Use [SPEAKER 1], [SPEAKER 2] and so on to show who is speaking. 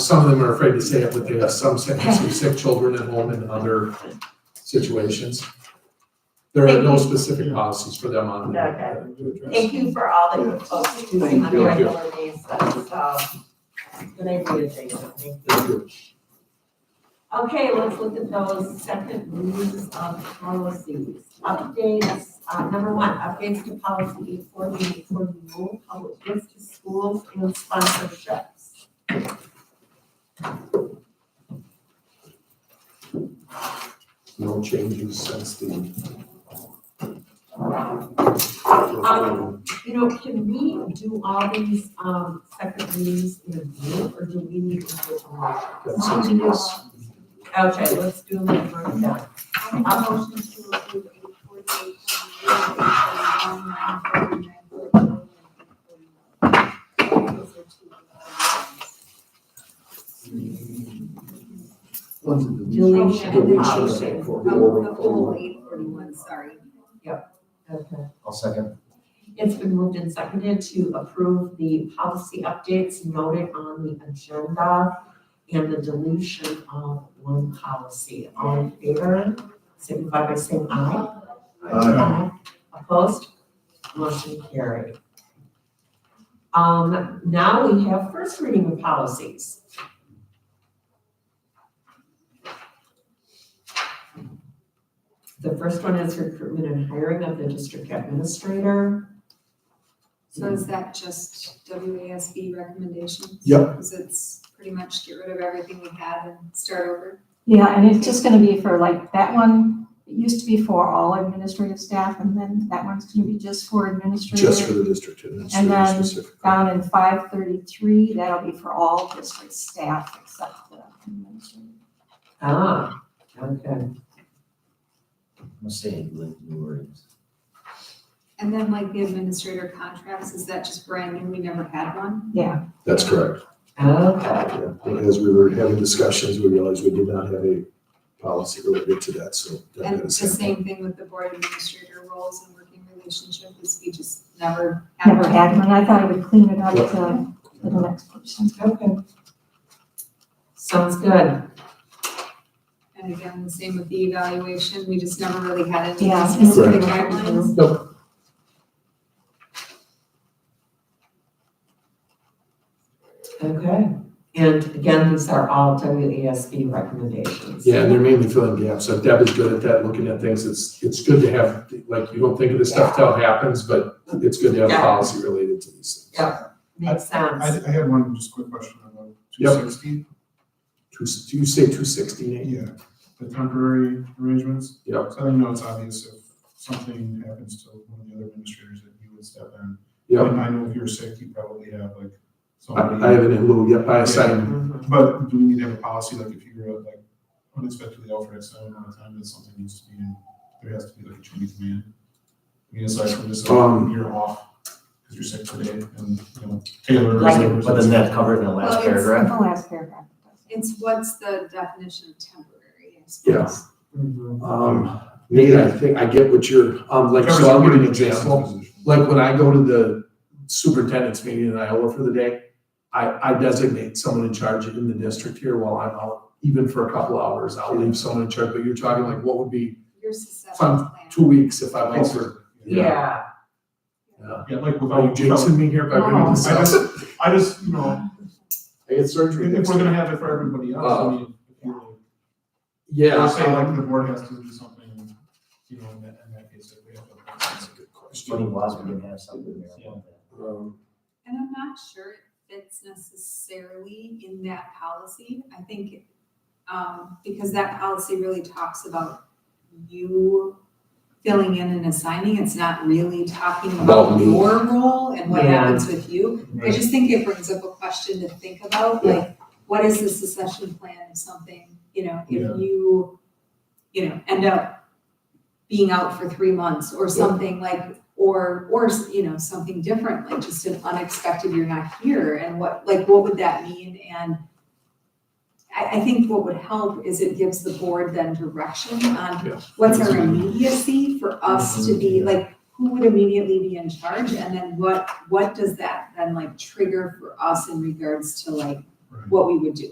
[SPEAKER 1] some of them are afraid to say it, but they have some, sick- some sick children at home and other situations. There are no specific policies for them on that.
[SPEAKER 2] Thank you for all that you post on
[SPEAKER 1] you.
[SPEAKER 2] a regular basis, so, good idea, Jason, thank you.
[SPEAKER 1] Thank you.
[SPEAKER 2] Okay, let's look at those second reads of policies. Updates, uh, number one, updates to policy eight forty, eight forty-one, public gifts to schools and sponsorships.
[SPEAKER 1] No changes since the.
[SPEAKER 2] Um, You know, can we do all these, um, second reads in a group, or do we need to do it alone?
[SPEAKER 1] That seems to be us.
[SPEAKER 2] Okay, let's do them in a group then.
[SPEAKER 3] I'll motion to approve eight forty-eight, forty-one, nine forty-nine, forty-one,
[SPEAKER 2] Deletion.
[SPEAKER 1] Deletion.
[SPEAKER 3] Oh, the whole eight forty-one, sorry.
[SPEAKER 2] Okay.
[SPEAKER 4] I'll second.
[SPEAKER 2] It's been moved and seconded to approve the policy updates noted on the agenda and the deletion of one policy. All in favor, signify by saying aye. Opposed? Motion carried. Um, now we have first reading of policies. The first one is recruitment and hiring of the district administrator.
[SPEAKER 3] So is that just WASB recommendations?
[SPEAKER 1] Yep.
[SPEAKER 3] Because it's pretty much get rid of everything we had and start over.
[SPEAKER 5] Yeah, and it's just gonna be for like, that one, it used to be for all administrative staff, and then that one's gonna be just for
[SPEAKER 1] Just for
[SPEAKER 5] administrative.
[SPEAKER 1] the district
[SPEAKER 5] And
[SPEAKER 1] administrator
[SPEAKER 5] then um,
[SPEAKER 1] specifically.
[SPEAKER 5] Down in five thirty-three, that'll be for all district staff except the administrative.
[SPEAKER 2] Ah, okay.
[SPEAKER 4] I'm saying like new words.
[SPEAKER 3] And then like the administrator contracts, is that just brand new? We never had one?
[SPEAKER 1] That's correct.
[SPEAKER 2] Okay.
[SPEAKER 1] Yeah. As we were having discussions, we realized we did not have a policy related to that, so. that
[SPEAKER 3] And
[SPEAKER 1] had a
[SPEAKER 3] the
[SPEAKER 1] sample.
[SPEAKER 3] same thing with the board administrator roles and working relationship is we just never had
[SPEAKER 5] Never
[SPEAKER 3] one.
[SPEAKER 5] had one, I thought it would clean it up to, to the next person.
[SPEAKER 2] Okay. Sounds good.
[SPEAKER 3] And again, the same with the evaluation, we just never really had any
[SPEAKER 5] Yeah. Mm-hmm.
[SPEAKER 3] specific
[SPEAKER 2] Correct.
[SPEAKER 3] guidelines.
[SPEAKER 2] Okay. And again, these are all WASB recommendations.
[SPEAKER 1] Yeah, and they're mainly filling gaps. So Deb is good at that, looking at things. It's, it's good to have, like, you don't think of this stuff till it happens, but it's good to have
[SPEAKER 2] Yeah.
[SPEAKER 1] policy related to these things.
[SPEAKER 2] Yeah. Makes sense.
[SPEAKER 6] I, I had one just quick question about two
[SPEAKER 1] Yep.
[SPEAKER 6] sixty,
[SPEAKER 1] Two, do you say two sixty, Nate?
[SPEAKER 6] yeah, the temporary arrangements.
[SPEAKER 1] Yep.
[SPEAKER 6] So I know it's obvious if something happens to one of the other administrators that you would step in.
[SPEAKER 1] Yep.
[SPEAKER 6] And I know if you're sick, you probably have like
[SPEAKER 1] I, I
[SPEAKER 6] somebody,
[SPEAKER 1] have it in lieu, yep, I assign,
[SPEAKER 2] Mhm.
[SPEAKER 6] but do we need to have a policy, like if you're uh, like unexpectedly out for X amount of time, that something needs to be, in there has to be like a chain of command? I mean, aside from just
[SPEAKER 1] Um,
[SPEAKER 6] like you're off, because you're sick today, and, you know, Taylor. or
[SPEAKER 2] Like-
[SPEAKER 6] whoever's-
[SPEAKER 4] But isn't that covered in the
[SPEAKER 3] Well, it's-
[SPEAKER 4] last
[SPEAKER 5] The
[SPEAKER 4] paragraph?
[SPEAKER 5] last paragraph.
[SPEAKER 3] It's what's the definition of temporary? I suppose.
[SPEAKER 1] Yeah.
[SPEAKER 2] Mhm.
[SPEAKER 1] um, Nate, I think, I get what you're, um, like,
[SPEAKER 6] Covers
[SPEAKER 1] so I'll give you an
[SPEAKER 6] everybody in Jason's
[SPEAKER 1] example.
[SPEAKER 6] position.
[SPEAKER 1] like when I go to the superintendent's meeting in Iowa for the day, I, I designate someone in charge in the district here while I'm out, even for a couple hours, I'll leave someone in charge, but you're talking like, what would be
[SPEAKER 3] Your succession
[SPEAKER 1] Fun.
[SPEAKER 3] plan.
[SPEAKER 1] two weeks if I'm out for, Yeah.
[SPEAKER 2] Yeah.
[SPEAKER 6] Yeah, like
[SPEAKER 1] are
[SPEAKER 6] without.
[SPEAKER 1] you jinxing me Oh, here by bringing this
[SPEAKER 6] I
[SPEAKER 1] up?
[SPEAKER 6] just, I just, you know,
[SPEAKER 1] I get surgery
[SPEAKER 6] if
[SPEAKER 1] next
[SPEAKER 6] we're
[SPEAKER 1] week.
[SPEAKER 6] gonna have it for everybody else, I mean, if you're,
[SPEAKER 1] Uh, Yeah.
[SPEAKER 6] or say like
[SPEAKER 1] um,
[SPEAKER 6] the board has to do something, you know, in that, in that case, if we have
[SPEAKER 1] That's
[SPEAKER 6] to.
[SPEAKER 1] a good
[SPEAKER 4] Funny,
[SPEAKER 1] question.
[SPEAKER 4] Wasm didn't have something there. about that.
[SPEAKER 1] Um,
[SPEAKER 3] And I'm not sure it fits necessarily in that policy. I think, um, because that policy really talks about you filling in and assigning. It's not really talking
[SPEAKER 1] About
[SPEAKER 3] about
[SPEAKER 1] me.
[SPEAKER 3] your role and what
[SPEAKER 2] Yeah.
[SPEAKER 3] happens with you. I just think it brings up a question to think about, like, what is the succession plan of something, you know, if
[SPEAKER 6] Yeah.
[SPEAKER 3] you, you know, end up being out for three months or something like, or or you know something different like just an unexpected you're not here and what like what would that mean and I, I think what would help is it gives the board then direction on
[SPEAKER 1] Yeah.
[SPEAKER 3] what's our immediacy for us to be like who would immediately be in charge and then what what does that then like trigger for us in regards to like
[SPEAKER 6] Right.
[SPEAKER 3] what we would do